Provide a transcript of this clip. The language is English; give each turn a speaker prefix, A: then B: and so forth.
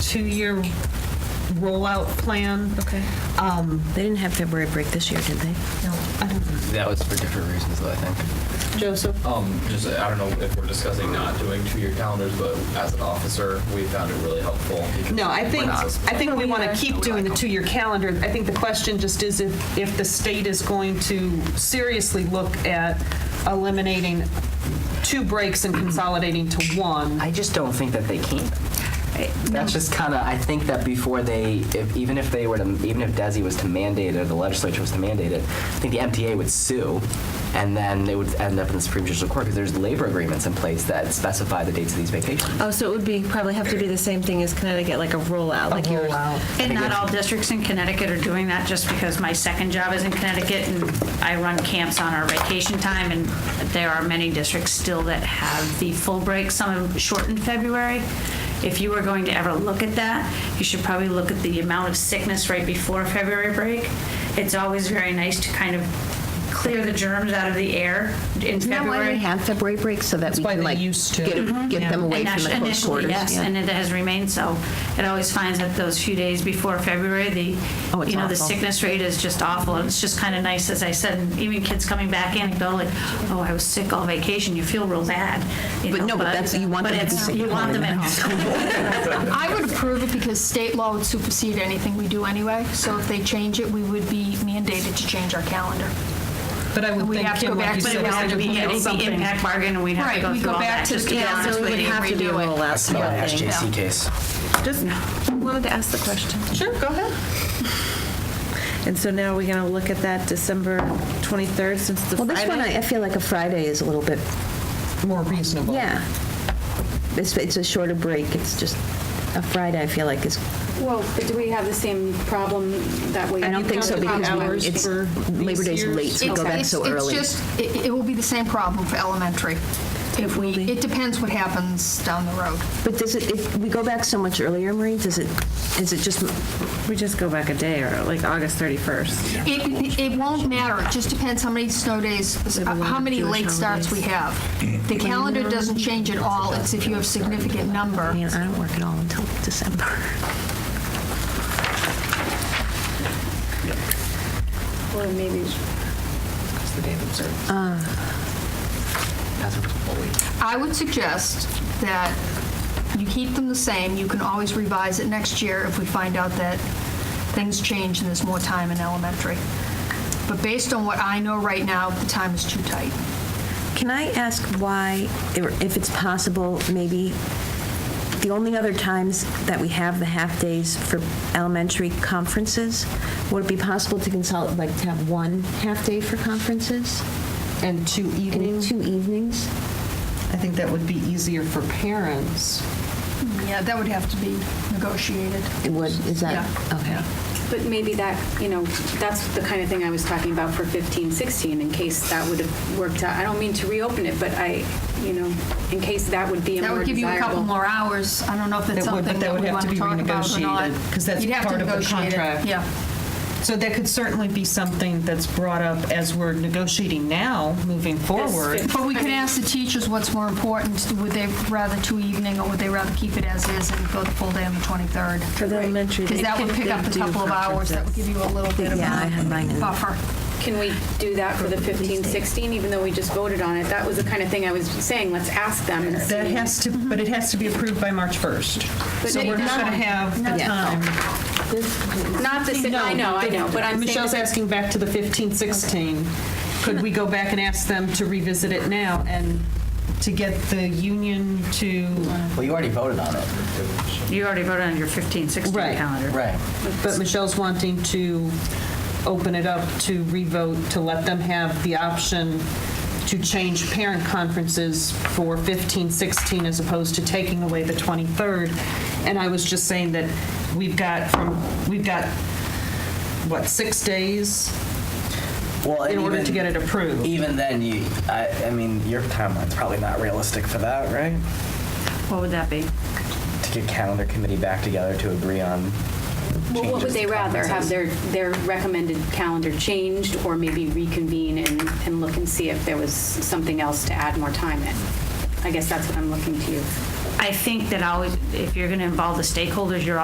A: two-year rollout plan. Um,
B: Okay. They didn't have February break this year, did they?
C: That was for different reasons, though, I think.
A: Joseph?
D: Um, just I don't know if we're discussing not doing two-year calendars, but as an officer, we found it really helpful. because
A: No, I
D: we're
A: think,
D: not-
A: I think we want to keep doing the two-year calendar. I think the question just is if, if the state is going to seriously look at eliminating two breaks and consolidating to one.
C: I just don't think that they can. That's just kind of. I think that before they, if, even if they were to, even if Desi was to mandate it, or the legislature was to mandate it, I think the MTA would sue, and then it would end up in the Supreme Judicial Court because there's labor agreements in place that specify the dates of these vacations.
B: Oh, so it would be, probably have to be the same thing as Connecticut, like a rollout, like yours.
E: And not all districts in Connecticut are doing that, just because my second job is in Connecticut and I run camps on our vacation time, and there are many districts still that have the full break, some have shortened February. If you were going to ever look at that, you should probably look at the amount of sickness right before February break. It's always very nice to kind of clear the germs out of the air in February.
F: Isn't that why we have February breaks, so that we
A: why
F: can
A: they
F: like
A: used to.
F: get get them away from the
E: Initially,
F: close quarters?
E: Yes,
F: yeah.
E: and it has remained so. It always finds that those few days before February, the,
F: Oh, it's
E: you know, the
F: awful.
E: sickness rate is just awful. And it's just kind of nice, as I said, and even kids coming back anecdotally, oh, I was sick all vacation, you feel real bad. you
F: But
E: know,
F: no, but that's- you want
E: but
F: them to be
E: it's-
F: sick
E: You
F: at
E: want
F: home
E: them
F: in
E: at
F: the
E: home.
G: I would approve it because state law would supersede anything we do anyway. So if they change it, we would be mandated to change our calendar.
A: But I would
G: We
A: think,
G: have to
A: Kim,
G: go
A: like
G: back
A: you
G: to
E: But
A: said,
E: it
A: we
E: would have
A: have
E: to
A: to
E: be,
A: put out
E: it'd be
A: something.
E: impact bargain, and we'd have to
G: Right,
E: go
G: we
E: through
G: go
E: all
G: back
E: that,
G: to-
E: just to be
G: yeah,
E: honest
G: so it
E: with
G: would
E: you.
G: have to be a
C: I
G: rollout.
C: smell an
G: Yeah.
C: SJC case.
B: Just wanted to ask the question.
A: Sure, go ahead.
B: And so now we're going to look at that December 23rd, since the
F: Well, this one, I I feel like a Friday is a little bit,
A: More reasonable.
F: yeah. It's, it's a shorter break, it's just, a Friday, I feel like is,
H: Well, but do we have the same problem that we?
F: I don't think so because we- it's, Labor Day's late, so we go back
G: It's-
F: so
G: it's
F: early.
G: just- it, it will be the same problem for elementary. If we, it depends what happens down the road.
F: But does it, if we go back so much earlier, Marie, does it, is it just,
B: We just go back a day, or like August 31st.
G: It, it won't matter. It just depends how many snow days, how many late starts we have. The calendar doesn't change at all. It's if you have significant number.
F: I mean, I don't work at all until December.
H: Or maybe,
C: That's the date of observance. That's what's fully-
G: I would suggest that you keep them the same. You can always revise it next year if we find out that things change and there's more time in elementary. But based on what I know right now, the time is too tight.
F: Can I ask why, or if it's possible, maybe the only other times that we have the half-days for elementary conferences, would it be possible to consolidate, like to have one half-day for conferences?
A: And two
F: And
A: evenings.
F: two evenings?
A: I think that would be easier for parents.
G: Yeah, that would have to be negotiated.
F: It would, is that,
G: Yeah.
F: okay.
H: but maybe that, you know, that's the kind of thing I was talking about for 15, 16, in case that would have worked out. I don't mean to reopen it, but I, you know, in case that would be a
G: That
H: more
G: would give you a couple
H: desirable.
G: more hours. I don't know if that's
A: That would, but
G: something
A: that
G: that
A: would
G: we
A: have
G: want
A: to
G: to
A: be
G: talk about or not.
A: renegotiated, 'cause that's
G: You'd have to
A: part of the
G: negotiate it.
A: contract.
G: Yeah.
A: So that could certainly be something that's brought up as we're negotiating now, moving forward.
G: But we could ask the teachers what's more important. Would they rather two evening or would they rather keep it as is and go the full day on the 23rd?
B: For the elementary,
G: Because
B: they
G: that would
B: could-
G: pick
B: they
G: up a
B: do
G: couple of hours. That would give you a little bit of
F: Yeah, I had mine
G: a
F: in.
G: buffer.
H: Can we do that for the 15, 16, even though we just voted on it? That was the kind of thing I was saying, let's ask them and
A: That
H: see.
A: has to, but it has to be approved by March 1st. So
H: it-
A: we're not going to have the
F: Yeah.
A: time.
H: Not the, si- I know, I know, but I'm saying.
A: Michelle's asking back to the 15, 16. Could we go back and ask them to revisit it now and to get the union to?
C: Well, you already voted on it.
E: You already voted on your 15, 16
A: Right.
E: calendar.
C: Right.
A: But Michelle's wanting to open it up to revote, to let them have the option to change parent conferences for 15, 16, as opposed to taking away the 23rd. And I was just saying that we've got from, we've got, what, six days
I: Well,
A: in
I: and
A: order to
I: even-
A: get it approved?
I: Even then, you, I, I mean, your timeline's probably not realistic for that, right?
E: What would that be?
I: To get calendar committee back together to agree on.
H: Well, what would
I: changes
H: they
I: to
H: rather, have
I: conferences.
H: their, their recommended calendar changed, or maybe reconvene and, and look and see if there was something else to add more time in? I guess that's what I'm looking to you.
E: I think that always, if you're going to involve the stakeholders, you're